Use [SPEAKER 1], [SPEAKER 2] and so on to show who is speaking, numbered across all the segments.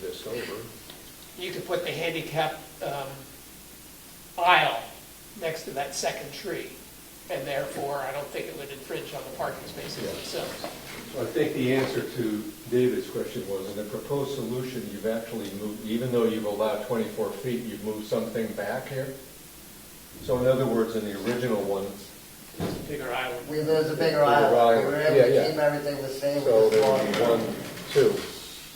[SPEAKER 1] just over.
[SPEAKER 2] you could put the handicap um, aisle next to that second tree, and therefore, I don't think it would infringe on the parking spaces
[SPEAKER 1] Yeah.
[SPEAKER 2] themselves.
[SPEAKER 1] Well, I think the answer to David's question was, in the proposed solution, you've actually moved, even though you've allowed 24 feet, you've moved something back here? So in other words, in the original one,
[SPEAKER 2] It's a bigger island.
[SPEAKER 3] We, there was a bigger
[SPEAKER 1] Bigger
[SPEAKER 3] aisle, we
[SPEAKER 1] aisle,
[SPEAKER 3] were
[SPEAKER 1] yeah,
[SPEAKER 3] able
[SPEAKER 1] yeah.
[SPEAKER 3] to keep everything the same
[SPEAKER 1] so
[SPEAKER 3] with the
[SPEAKER 1] there
[SPEAKER 3] small.
[SPEAKER 1] would be one, two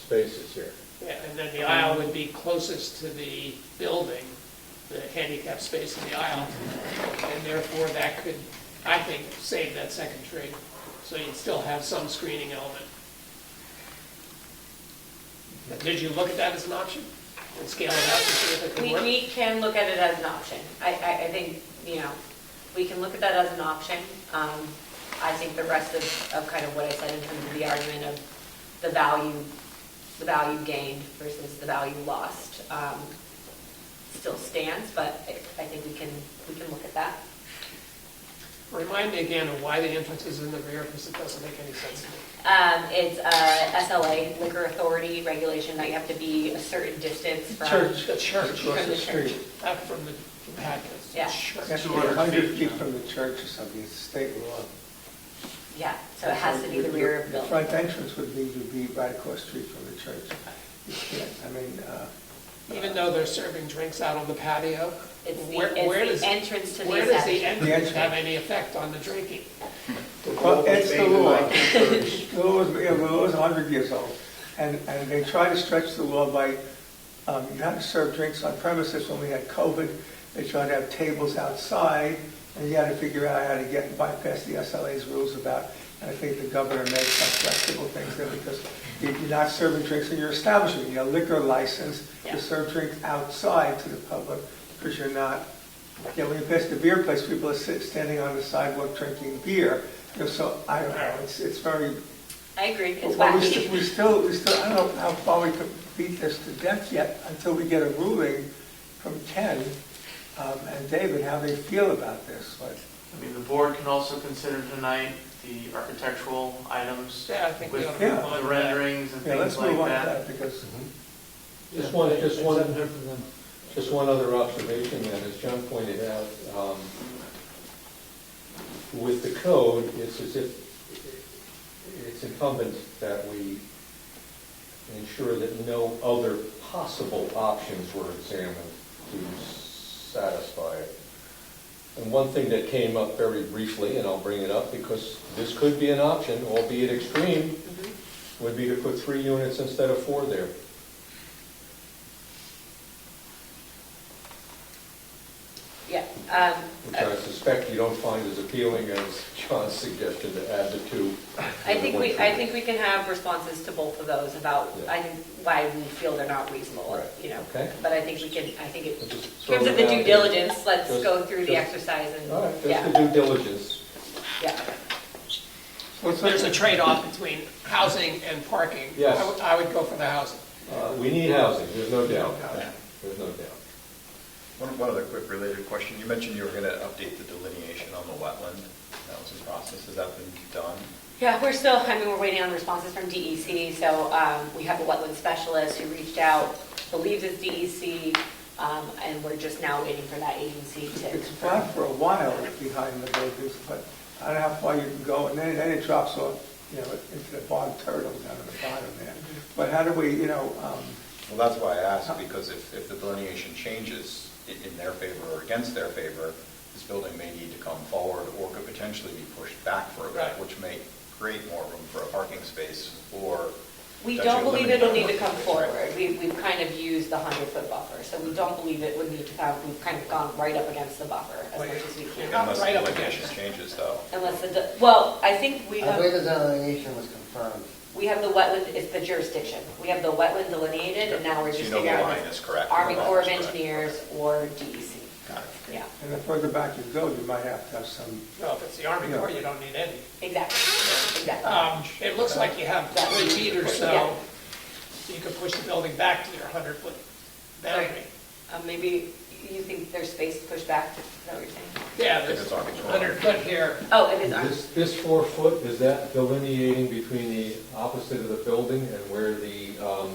[SPEAKER 1] spaces here.
[SPEAKER 2] Yeah, And then the aisle would be closest to the building, the handicap space in the aisle, and therefore, that could, I think, save that second tree. So you'd still have some screening element. Did you look at that as an option, and scale it out to see if it could
[SPEAKER 4] We,
[SPEAKER 2] work?
[SPEAKER 4] we can look at it as an option. I, I, I think, you know, we can look at that as an option. Um, I think the rest of, of kind of what I said in terms of the argument of the value, the value gained versus the value lost, um, still stands, but I, I think we can, we can look at that.
[SPEAKER 2] Remind me again of why the entrance is in the rear, because it doesn't make any sense to me.
[SPEAKER 4] Um, it's, uh, SLA, liquor authority regulation, that you have to be a certain distance from.
[SPEAKER 2] The church.
[SPEAKER 4] Across the street.
[SPEAKER 2] Not from the from patio. it's the
[SPEAKER 4] Yeah.
[SPEAKER 2] church.
[SPEAKER 5] That's 100 feet from the church or something, it's state law.
[SPEAKER 4] Yeah, so it has to be the rear of the building.
[SPEAKER 5] front entrance would be, to be right across the street from the church. You can't, I mean, uh,
[SPEAKER 2] Even though they're serving drinks out on the patio?
[SPEAKER 4] It's the,
[SPEAKER 2] where- where
[SPEAKER 4] it's
[SPEAKER 2] does-
[SPEAKER 4] the entrance to the
[SPEAKER 2] Where does the
[SPEAKER 4] establishment.
[SPEAKER 2] entrance
[SPEAKER 5] entrance.
[SPEAKER 2] have any effect on the drinking?
[SPEAKER 5] well, it's the law. The law is, yeah, the law is 100 years old, and, and they try to stretch the law by, um, you had to serve drinks on premises when we had COVID, they tried to have tables outside, and you had to figure out how to get, bypass the SLA's rules about, and I think the governor made some flexible things there, because you- you're not serving drinks in your establishment, you have a liquor license
[SPEAKER 4] Yeah.
[SPEAKER 5] to serve drinks outside to the public, because you're not yeah, when you pass the beer place, people are sit, standing on the sidewalk drinking beer. You know, so I don't know. It's it's very.
[SPEAKER 4] I agree, it's
[SPEAKER 5] but we, st- we
[SPEAKER 4] wacky.
[SPEAKER 5] still we still I don't know how far we could beat this to death yet until we get a ruling from Ken um, and David how they feel about this. Like,
[SPEAKER 6] I mean, the board can also consider tonight the architectural items
[SPEAKER 2] Yeah, I think we
[SPEAKER 6] with
[SPEAKER 2] ought to
[SPEAKER 5] Yeah.
[SPEAKER 2] move on
[SPEAKER 6] the
[SPEAKER 2] to that.
[SPEAKER 6] renderings and
[SPEAKER 5] yeah, let's
[SPEAKER 6] things like
[SPEAKER 5] move on to that
[SPEAKER 6] that.
[SPEAKER 5] because
[SPEAKER 1] Just one, just one, just one other observation then, as John pointed out, um, with the code, it's as if, it's incumbent that we ensure that no other possible options were examined to satisfy it. And one thing that came up very briefly, and I'll bring it up, because this could be an option, albeit extreme, would be to put three units instead of four there.
[SPEAKER 4] Yeah, um,
[SPEAKER 1] Which
[SPEAKER 4] uh,
[SPEAKER 1] I suspect you don't find as appealing as John's suggestion to add the two.
[SPEAKER 4] I think we, I think we can have responses to both of those about,
[SPEAKER 1] Yeah.
[SPEAKER 4] I think, why we feel they're not reasonable,
[SPEAKER 1] Right,
[SPEAKER 4] you know?
[SPEAKER 1] okay.
[SPEAKER 4] But I think we can, I think it,
[SPEAKER 1] Let's
[SPEAKER 4] in
[SPEAKER 1] just throw
[SPEAKER 4] terms of
[SPEAKER 1] it
[SPEAKER 4] the
[SPEAKER 1] out
[SPEAKER 4] due
[SPEAKER 1] there.
[SPEAKER 4] diligence, let's
[SPEAKER 1] Just-
[SPEAKER 4] go through the
[SPEAKER 1] just-
[SPEAKER 4] exercise
[SPEAKER 1] All right,
[SPEAKER 4] and,
[SPEAKER 1] that's
[SPEAKER 4] yeah,
[SPEAKER 1] the due diligence.
[SPEAKER 4] yeah.
[SPEAKER 6] Mm-hmm.
[SPEAKER 5] well, it's
[SPEAKER 2] There's
[SPEAKER 5] like,
[SPEAKER 2] a trade-off between housing and parking.
[SPEAKER 1] Yes.
[SPEAKER 2] I would- I would go for the housing.
[SPEAKER 1] Uh, We need housing, there's no doubt. There's no doubt.
[SPEAKER 7] One, one other quick related question. You mentioned you were going to update the delineation on the wetland. That was in process. Has that been done?
[SPEAKER 4] Yeah, we're still, I mean, we're waiting on responses from DEC, so um, we have a wetland specialist who reached out, believes it's DEC, um, and we're just now waiting for that agency to
[SPEAKER 5] it's
[SPEAKER 4] confirm.
[SPEAKER 5] flat for a while behind the buildings, but I don't know how far you can go, and then, then it drops off, you know, into the bog turtle down at the bottom there. But how do we, you know? Um,
[SPEAKER 7] Well, that's why I
[SPEAKER 4] Uh-huh.
[SPEAKER 7] asked, because if, if the delineation changes i- in their favor or against their favor, this building may need to come forward or could potentially be pushed back further,
[SPEAKER 2] Right.
[SPEAKER 7] which may create more room for a parking space or.
[SPEAKER 4] We
[SPEAKER 7] potentially
[SPEAKER 4] don't believe
[SPEAKER 7] eliminate
[SPEAKER 4] it'll
[SPEAKER 7] that
[SPEAKER 4] need to
[SPEAKER 7] parking
[SPEAKER 4] come
[SPEAKER 7] space.
[SPEAKER 4] forward. We, we've kind of used the hundred foot buffer, so we don't believe it would need to come, we've kind of gone right up against the buffer as much as we can.
[SPEAKER 7] Unless the
[SPEAKER 2] Right up
[SPEAKER 7] delineation
[SPEAKER 2] against it.
[SPEAKER 7] changes, though.
[SPEAKER 4] Unless the, de- well, I think we
[SPEAKER 3] I believe
[SPEAKER 4] have,
[SPEAKER 3] the delineation was confirmed.
[SPEAKER 4] we have the wetland, it's the jurisdiction. We have the wetland delineated and now we're
[SPEAKER 7] So
[SPEAKER 4] just
[SPEAKER 7] you know
[SPEAKER 4] figuring
[SPEAKER 7] the
[SPEAKER 4] out.
[SPEAKER 7] line
[SPEAKER 4] if it's
[SPEAKER 7] is correct.
[SPEAKER 4] Army
[SPEAKER 7] The line
[SPEAKER 4] Corps of
[SPEAKER 7] is correct.
[SPEAKER 4] Engineers or DEC,
[SPEAKER 7] Got it.
[SPEAKER 4] yeah,
[SPEAKER 5] And the further back you go, you might have to have some,
[SPEAKER 2] No, if it's the Army Corps, you don't need any.
[SPEAKER 4] exactly, exactly.
[SPEAKER 2] Um, It looks like you have three feet or
[SPEAKER 4] Yeah.
[SPEAKER 2] so, so you could push the building back to your 100-foot boundary.
[SPEAKER 4] Um, maybe you think there's space to push back, is that what you're saying?
[SPEAKER 2] Yeah,
[SPEAKER 7] If
[SPEAKER 2] there's
[SPEAKER 7] it's Army Corps.
[SPEAKER 2] 100-foot here.
[SPEAKER 4] Oh, it is Army.
[SPEAKER 1] This, this four foot, is that delineating between the opposite of the building and where the um,